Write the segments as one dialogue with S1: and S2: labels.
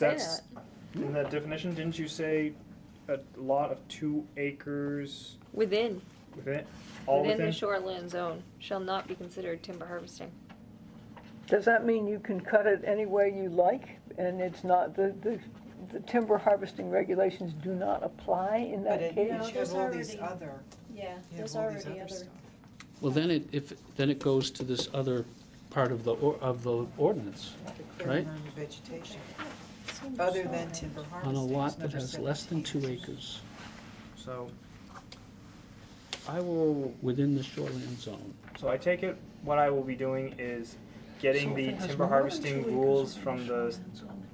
S1: That's, in that definition, didn't you say a lot of two acres
S2: Within,
S1: within, all
S2: within the
S1: within?
S2: shoreline zone shall not be considered timber harvesting.
S3: Does that mean you can cut it any way you like, and it's not, the, the, the timber harvesting regulations do not apply in
S4: But
S3: that
S4: it-
S3: case?
S4: you
S5: No,
S4: have
S5: there's
S4: all these
S5: already-
S4: other,
S5: Yeah,
S4: you
S5: there's
S4: have all these
S5: already
S4: other
S5: other,
S4: stuff.
S6: Well, then it, if, then it goes to this other part of the, or- of the ordinance,
S4: like a
S6: Right.
S4: clearing of vegetation, other than timber harvesting.
S6: on a lot
S4: It's
S6: that
S4: number
S6: has less than two
S4: 17.
S6: acres
S1: So, I will,
S6: within the shoreline zone.
S1: so I take it, what I will be doing is getting the timber harvesting rules from the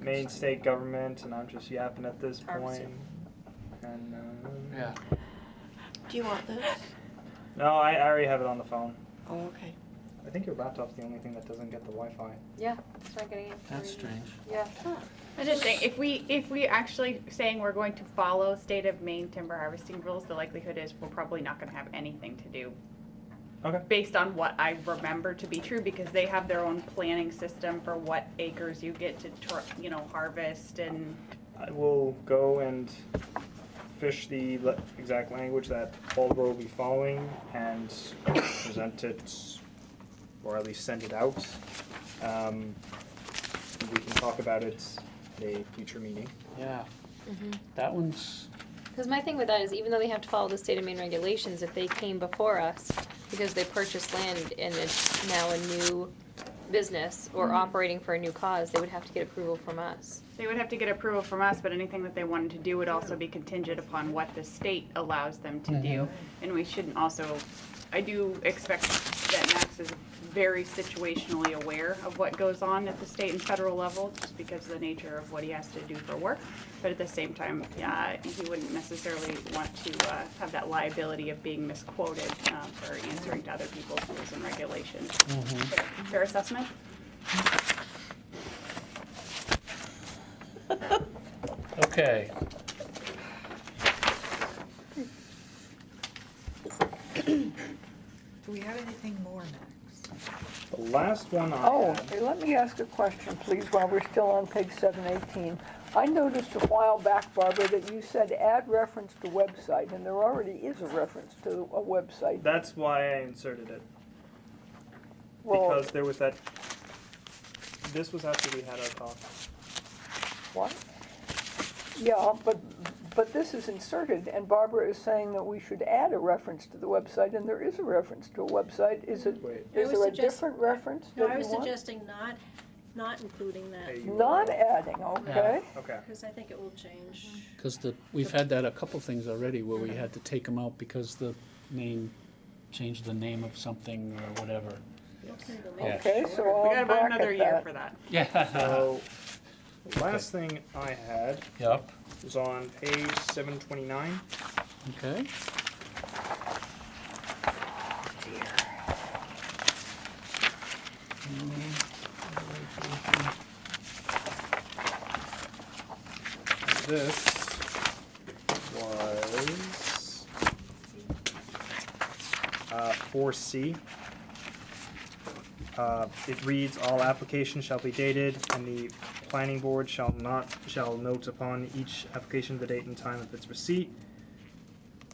S1: main state government, and I'm just yapping at this point.
S5: Harvesting.
S1: And, uh,
S6: Yeah.
S7: Do you want this?
S1: no, I, I already have it on the phone.
S7: Oh, okay.
S1: I think your laptop's the only thing that doesn't get the Wi-Fi.
S2: Yeah, it's not getting it. Yeah.
S8: I'm just saying, if we, if we actually saying we're going to follow state of Maine timber harvesting rules, the likelihood is we're probably not gonna have anything to do.
S1: Okay.
S8: Based on what I remember to be true, because they have their own planning system for what acres you get to, tor- you know, harvest and,
S1: I will go and fish the le- exact language that Baldwin will be following and present it, or at least send it out. Um, and we can talk about it at a future meeting.
S6: Yeah. That one's,
S2: Because my thing with that is even though they have to follow the state of Maine regulations, if they came before us because they purchased land and it's now a new business or operating for a new cause, they would have to get approval from us.
S8: they would have to get approval from us, but anything that they wanted to do would also be contingent upon what the state allows them to do. And we shouldn't also, I do expect that Max is very situationally aware of what goes on at the state and federal level, just because of the nature of what he has to do for work. But at the same time, uh, he wouldn't necessarily want to uh, have that liability of being misquoted uh, for answering to other people's rules and regulations. Fair assessment?
S6: okay.
S4: Do we have anything more, Max?
S1: The last one I
S3: Oh,
S1: had-
S3: hey, let me ask a question, please, while we're still on page seven eighteen. I noticed a while back, Barbara, that you said add reference to website, and there already is a reference to a website.
S1: that's why I inserted it.
S3: Well,
S1: because there was that. This was after we had our talk.
S3: What? Yeah, but, but this is inserted, and Barbara is saying that we should add a reference to the website, and there is a reference to a website. Is it,
S1: Wait.
S3: is there
S5: I
S3: a
S5: would suggest-
S3: different reference
S5: no,
S3: that
S5: I was
S3: you want?
S5: suggesting not, not including that,
S1: a URL.
S3: Not adding, okay?
S1: Okay.
S5: because I think it will change.
S6: Because the, we've had that a couple things already where we had to take them out because the name, changed the name of something or whatever.
S5: Okay, we'll
S6: Yeah.
S5: make
S3: Okay, so
S8: We got
S3: I'll
S8: about another
S3: bracket
S8: year
S3: that.
S8: for that.
S6: Yeah.
S1: So, last thing I had
S6: Yep.
S1: was on page seven twenty-nine.
S6: Okay.
S1: This was uh, four C. Uh, It reads, "All applications shall be dated, and the planning board shall not, shall note upon each application the date and time of its receipt."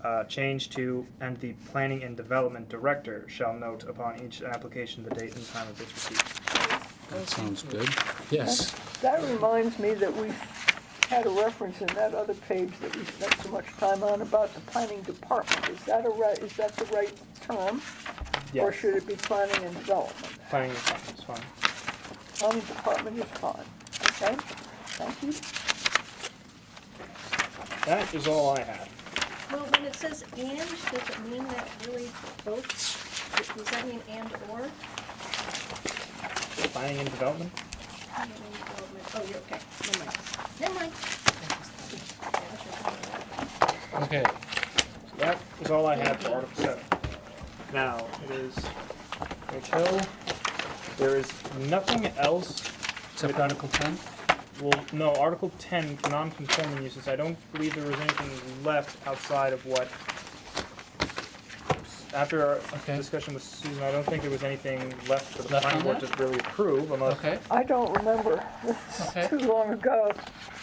S1: Uh, Change to, "And the planning and development director shall note upon each application the date and time of its receipt."
S6: That sounds good. Yes.
S3: That reminds me that we had a reference in that other page that we spent so much time on about the planning department. Is that a right, is that the right term? Or
S1: Yes.
S3: should it be planning and development?
S1: Planning and development is fine.
S3: Planning department is fine, okay? Thank you.
S1: That is all I had.
S5: Well, when it says and, does it mean that really both, does that mean and or?
S1: Planning and development?
S5: And development. Oh, you're okay, never mind, never mind.
S6: Okay.
S1: That is all I had for Article 7. Now, it is Rachel. There is nothing else.
S6: Except Article ten?
S1: Well, no, Article 10, non-conforming uses. I don't believe there was anything left outside of what after our
S6: Okay.
S1: discussion with Susan, I don't think there was anything left for the
S6: Left
S1: planning
S6: on
S1: board to
S6: that?
S1: really approve unless
S6: Okay,
S3: I don't remember. This
S6: Okay.
S3: is too long ago.